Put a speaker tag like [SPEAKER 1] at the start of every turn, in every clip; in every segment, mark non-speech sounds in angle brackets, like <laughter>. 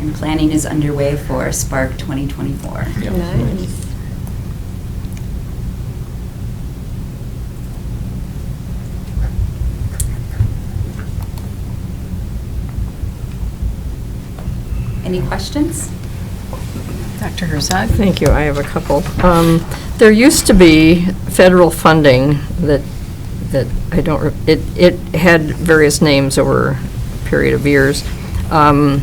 [SPEAKER 1] and planning is underway for Spark 2024.
[SPEAKER 2] Yeah.
[SPEAKER 3] Nice.
[SPEAKER 1] Any questions?
[SPEAKER 4] Dr. Herzog?
[SPEAKER 3] Thank you, I have a couple. Um, There used to be federal funding that, that I don't, re- it, it had various names over a period of years. Um,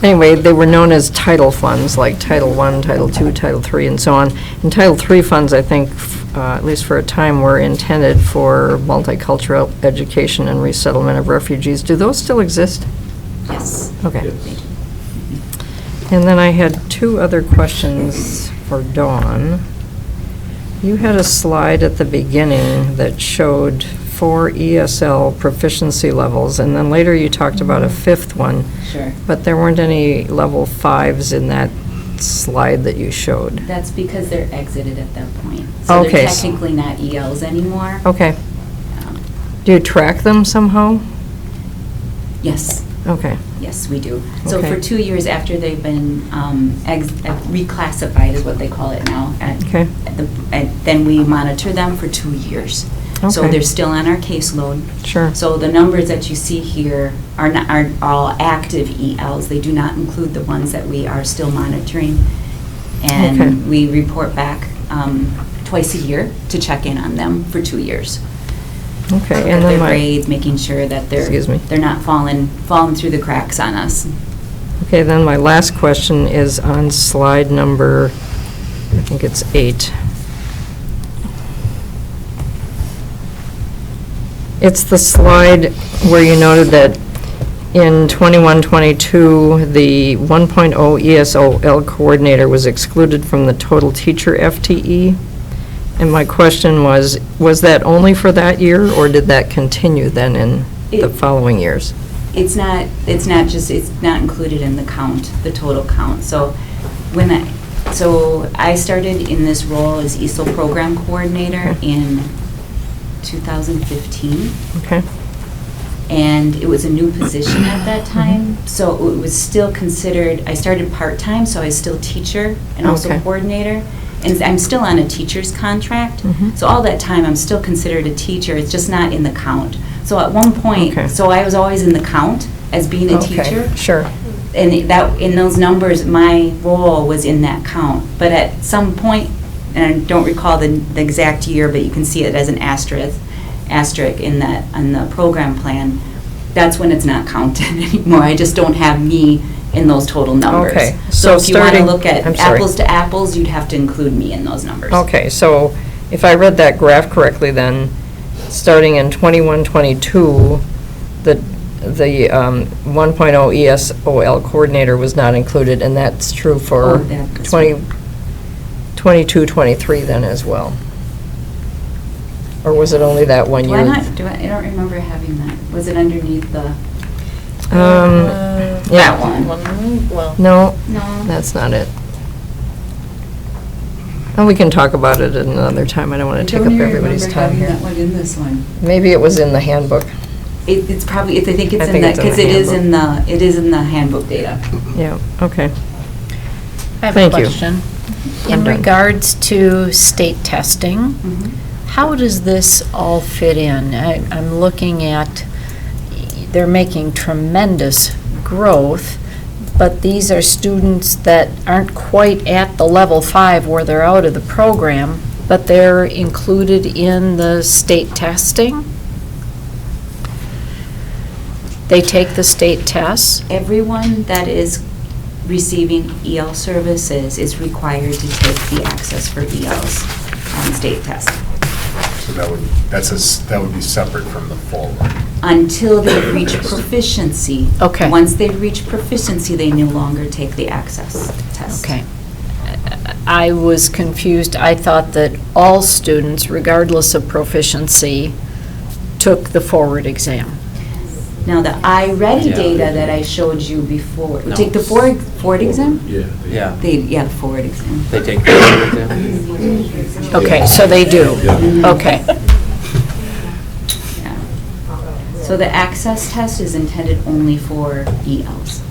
[SPEAKER 3] Anyway, they were known as title funds, like Title I, Title II, Title III, and so on. And Title III funds, I think, f- uh, at least for a time, were intended for multicultural education and resettlement of refugees. Do those still exist?
[SPEAKER 1] Yes.
[SPEAKER 3] Okay. And then I had two other questions for Dawn. You had a slide at the beginning that showed four ESL proficiency levels, and then later you talked about a fifth one,
[SPEAKER 1] Sure.
[SPEAKER 3] but there weren't any level fives in that slide that you showed.
[SPEAKER 1] That's because they're exited at that point. So
[SPEAKER 3] Okay.
[SPEAKER 1] they're technically not ELs anymore.
[SPEAKER 3] Okay.
[SPEAKER 1] Um,
[SPEAKER 3] Do you track them somehow?
[SPEAKER 1] Yes,
[SPEAKER 3] Okay,
[SPEAKER 1] yes, we do. So
[SPEAKER 3] Okay.
[SPEAKER 1] for two years after they've been um, ex- uh, reclassified, is what they call it now. at-
[SPEAKER 3] Okay.
[SPEAKER 1] at the- And then we monitor them for two years. So
[SPEAKER 3] Okay.
[SPEAKER 1] they're still on our caseload.
[SPEAKER 3] sure.
[SPEAKER 1] So the numbers that you see here are not, are all active ELs. They do not include the ones that we are still monitoring.
[SPEAKER 3] Okay.
[SPEAKER 1] And we report back um, twice a year to check in on them for two years. Look
[SPEAKER 3] Okay,
[SPEAKER 1] at
[SPEAKER 3] and
[SPEAKER 1] their
[SPEAKER 3] then my,
[SPEAKER 1] grades, making sure that they're,
[SPEAKER 3] Excuse me.
[SPEAKER 1] they're not falling, falling through the cracks on us.
[SPEAKER 3] okay, then my last question is on slide number, I think it's eight. It's the slide where you noted that in 21-22, the 1.0 ESOL coordinator was excluded from the total teacher FTE. And my question was, was that only for that year, or did that continue then in the
[SPEAKER 1] It-
[SPEAKER 3] following years?
[SPEAKER 1] It's not, it's not just, it's not included in the count, the total count. So when I, so I started in this role as ESOL program coordinator
[SPEAKER 3] Okay.
[SPEAKER 1] in 2015.
[SPEAKER 3] Okay,
[SPEAKER 1] and it was a new position at that
[SPEAKER 3] Mm-hmm.
[SPEAKER 1] time. So it was still considered, I started part-time, so I was still teacher and also
[SPEAKER 3] Okay.
[SPEAKER 1] coordinator. And I'm still on a teacher's contract,
[SPEAKER 3] Mhm.
[SPEAKER 1] so all that time, I'm still considered a teacher, it's just not in the count. So at one
[SPEAKER 3] Okay.
[SPEAKER 1] point, so I was always in the count as being a
[SPEAKER 3] Okay,
[SPEAKER 1] teacher.
[SPEAKER 3] sure.
[SPEAKER 1] And that, in those numbers, my role was in that count. But at some point, and I don't recall the, the exact year, but you can see it as an asterisk, asterisk in that, on the program plan, that's when it's not counted <laughs> anymore. I just don't have me in those total numbers.
[SPEAKER 3] Okay,
[SPEAKER 1] So
[SPEAKER 3] so
[SPEAKER 1] if you want to
[SPEAKER 3] starting-
[SPEAKER 1] look at
[SPEAKER 3] I'm sorry.
[SPEAKER 1] apples to apples, you'd have to include me in those numbers.
[SPEAKER 3] Okay, so if I read that graph correctly, then, starting in 21, 22, the, the um, 1.0 ESOL coordinator was not included, and that's true
[SPEAKER 1] Oh,
[SPEAKER 3] for
[SPEAKER 1] that is
[SPEAKER 3] 20, 22, 23 then as well? Or was it only that one
[SPEAKER 1] Do I
[SPEAKER 3] year?
[SPEAKER 1] not, do I, I don't remember having that. Was it underneath the,
[SPEAKER 3] Um,
[SPEAKER 4] Uh,
[SPEAKER 3] yeah.
[SPEAKER 4] one, Well,
[SPEAKER 3] No,
[SPEAKER 1] no?
[SPEAKER 3] that's not it. And we can talk about it at another time, I don't want to take up everybody's time
[SPEAKER 1] I
[SPEAKER 3] here.
[SPEAKER 1] don't even remember having that one in this one.
[SPEAKER 3] Maybe it was in the handbook,
[SPEAKER 1] It, it's probably, it's- I think
[SPEAKER 3] I
[SPEAKER 1] it's in
[SPEAKER 3] think
[SPEAKER 1] the,
[SPEAKER 3] it's in
[SPEAKER 1] because
[SPEAKER 3] the
[SPEAKER 1] it is in the, it is in the handbook data.
[SPEAKER 3] yeah, okay.
[SPEAKER 4] I have a
[SPEAKER 3] Thank you.
[SPEAKER 4] question.
[SPEAKER 3] I'm
[SPEAKER 4] In
[SPEAKER 3] done.
[SPEAKER 4] regards to state testing,
[SPEAKER 3] Mm-hmm.
[SPEAKER 4] how does this all fit in? I- I'm looking at, they're making tremendous growth, but these are students that aren't quite at the level five where they're out of the program, but they're included in the state testing? They take the state tests?
[SPEAKER 1] Everyone that is receiving EL services is required to take the Access for ELs on state test
[SPEAKER 5] So that would, that's a, s- that would be separate from the full.
[SPEAKER 1] until they
[SPEAKER 3] <coughs>
[SPEAKER 1] reach proficiency.
[SPEAKER 4] Okay.
[SPEAKER 1] Once they reach proficiency, they no longer take the Access test.
[SPEAKER 4] Okay. I was confused. I thought that all students, regardless of proficiency, took the forward exam.
[SPEAKER 1] Now, the iReady
[SPEAKER 6] Yeah.
[SPEAKER 1] data that I showed you before,
[SPEAKER 6] No.
[SPEAKER 1] take the Ford, Ford exam?
[SPEAKER 6] Yeah,
[SPEAKER 1] They, yeah, the Ford exam.
[SPEAKER 6] they take pictures with them.
[SPEAKER 4] Okay, so they do. Okay.
[SPEAKER 1] Yeah. So the access test is intended only for E ELs.